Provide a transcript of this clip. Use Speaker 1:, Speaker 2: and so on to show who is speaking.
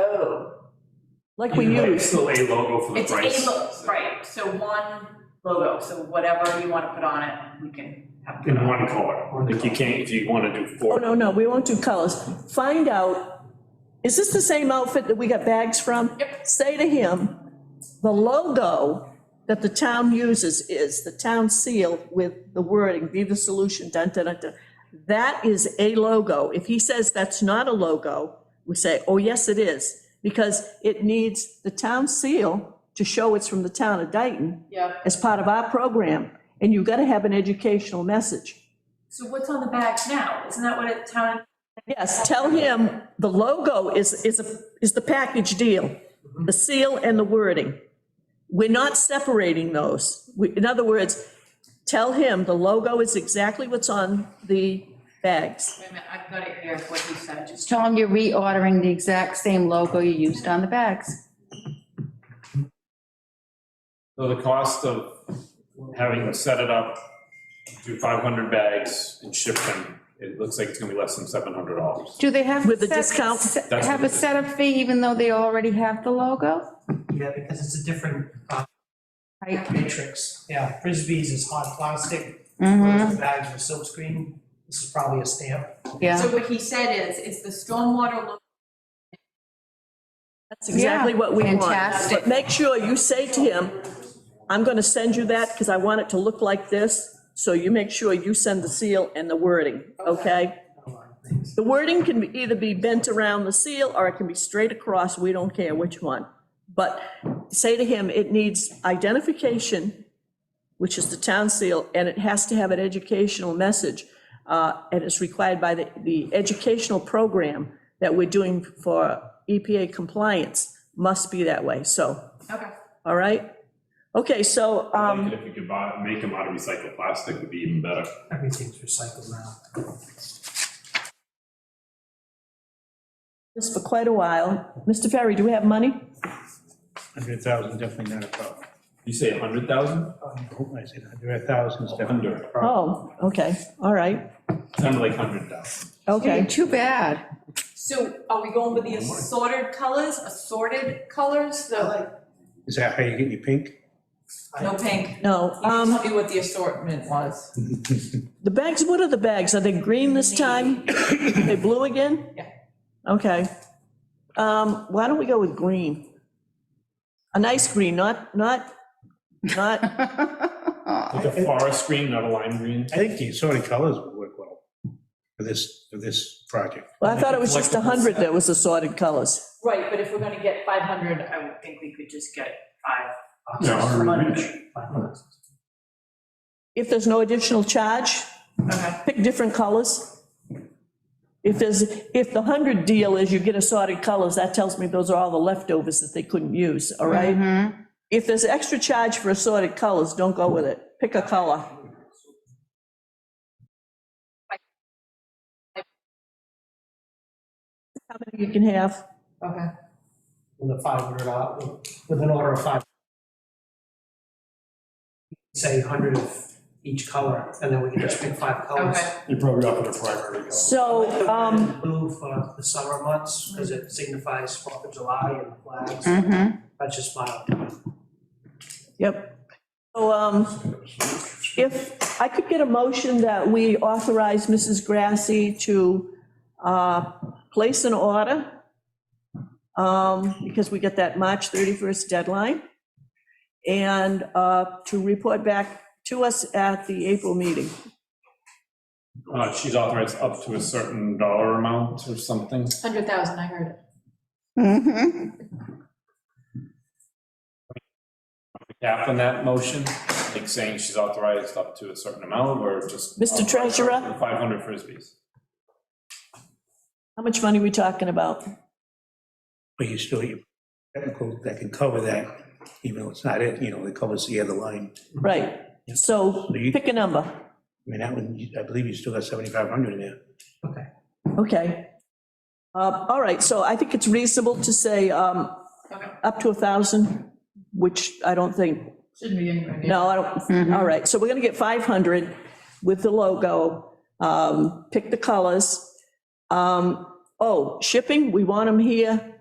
Speaker 1: Oh,
Speaker 2: like we
Speaker 3: Yeah,
Speaker 2: use.
Speaker 3: It's still a logo for the
Speaker 1: it's a,
Speaker 3: price.
Speaker 1: lo- right, so one logo, so whatever you want to put on it, we can have. put
Speaker 3: In
Speaker 1: on.
Speaker 3: one color, if you can't, if you wanna do
Speaker 2: Oh,
Speaker 3: four.
Speaker 2: no, no, we won't do colors. Find out, is this the same outfit that we got bags from?
Speaker 1: Yep.
Speaker 2: Say to him, the logo that the town uses is the town seal with the wording, be the solution, dun, dun, dun, dun. That is a logo. If he says that's not a logo, we say, oh, yes, it is, because it needs the town seal to show it's from the town of Dayton
Speaker 1: Yeah,
Speaker 2: as part of our program, and you've got to have an educational message.
Speaker 1: so what's on the bags now? Isn't that what it, town,
Speaker 2: Yes, tell him the logo is, is, a is the package deal, the seal and the wording. We're not separating those. We- In other words, tell him the logo is exactly what's on the bags.
Speaker 1: wait a minute, I've got it here, what you said, just.
Speaker 4: Tell them you're reordering the exact same logo you used on the bags.
Speaker 3: So the cost of having to set it up, do five hundred bags and ship them, it looks like it's gonna be less than seven hundred dollars.
Speaker 4: Do they have?
Speaker 2: With the
Speaker 4: set-
Speaker 2: discount?
Speaker 4: set-
Speaker 3: That's
Speaker 4: Have
Speaker 3: what
Speaker 4: a
Speaker 3: it is.
Speaker 4: setup fee even though they already have the logo?
Speaker 5: Yeah, because it's a different uh,
Speaker 4: Right.
Speaker 5: matrix. Yeah, Frisbees is hard plastic,
Speaker 4: Mhm,
Speaker 5: whereas the bags were silkscreen. This is probably a stamp.
Speaker 4: yeah.
Speaker 1: So what he said is, is the stormwater logo
Speaker 2: That's exactly what we want.
Speaker 4: fantastic.
Speaker 2: But make sure you say to him, I'm going to send you that because I want it to look like this. So you make sure you send the seal and the wording, okay?
Speaker 5: A lot of things.
Speaker 2: The wording can be- either be bent around the seal, or it can be straight across, we don't care which one. But say to him, it needs identification, which is the town seal, and it has to have an educational message. uh, And it's required by the, the educational program that we're doing for EPA compliance, must be that way, so,
Speaker 1: Okay.
Speaker 2: all right? Okay, so, um,
Speaker 3: If you could buy, make them out of recycled plastic would be even better.
Speaker 5: Everything's recycled now.
Speaker 2: this for quite a while. Mr. Ferry, do we have money?
Speaker 6: Hundred thousand, definitely not a problem.
Speaker 3: You say a hundred thousand?
Speaker 6: I said hundred thousand is definitely not a problem.
Speaker 2: Oh, okay, all right,
Speaker 3: Sounded like hundred thousand.
Speaker 2: okay.
Speaker 4: Too bad.
Speaker 1: So are we going with the assorted colors, assorted colors, the,
Speaker 6: Is that how you get your pink?
Speaker 1: no pink?
Speaker 2: No,
Speaker 1: You
Speaker 2: um,
Speaker 1: tell me what the assortment was.
Speaker 2: the bags, what are the bags? Are they green this time? Are they blue again?
Speaker 1: Yeah.
Speaker 2: Okay. Um, why don't we go with green? A nice green, not, not, not,
Speaker 3: Like a forest green, not a lime green?
Speaker 6: I think the assorted colors would work well for this, for this project.
Speaker 2: well, I thought it was just a 100 that was assorted colors.
Speaker 1: Right, but if we're gonna get five hundred, I would think we could just get five.
Speaker 3: Yeah, a hundred each.
Speaker 5: Five bucks.
Speaker 2: If there's no additional charge,
Speaker 1: Okay.
Speaker 2: pick different colors. If there's, if the 100 deal is you get assorted colors, that tells me those are all the leftovers that they couldn't use, all right?
Speaker 4: Mhm.
Speaker 2: If there's extra charge for assorted colors, don't go with it. Pick a color. How many you can have?
Speaker 1: Okay.
Speaker 5: With a five hundred dollar, with an order of five. Say hundred of each color, and then we can just pick five colors.
Speaker 1: Okay.
Speaker 3: You're probably up in a primary color.
Speaker 2: So, um,
Speaker 5: Blue for the summer months, because it signifies Fourth of July and flags.
Speaker 4: Mhm.
Speaker 5: That's just my.
Speaker 2: yep. So, um, if I could get a motion that we authorize Mrs. Grassy to, uh, place an order, um, because we get that March 31st deadline, and, uh, to report back to us at the April meeting.
Speaker 3: Uh, she's authorized up to a certain dollar amount or something.
Speaker 1: Hundred thousand, I heard it.
Speaker 2: Mm-hmm.
Speaker 4: Mhm.
Speaker 3: Cap on that motion, like saying she's authorized up to a certain amount or just.
Speaker 2: Mr. Treasurer?
Speaker 3: Five hundred frisbees.
Speaker 2: How much money we talking about?
Speaker 6: But you still, you, technical, that can cover that, even though it's not it, you know, it covers the other line.
Speaker 2: Right, so
Speaker 6: So you-
Speaker 2: pick a number,
Speaker 6: I mean, that one, you- I believe you still got seventy-five hundred in there.
Speaker 2: okay. Uh, All right, so I think it's reasonable to say um,
Speaker 1: Okay.
Speaker 2: up to a 1,000, which I don't think,
Speaker 1: Shouldn't be anywhere near.
Speaker 2: no, I don't, all right, so we're going to get 500 with the logo, um, pick the colors. Um, Oh, shipping, we want them here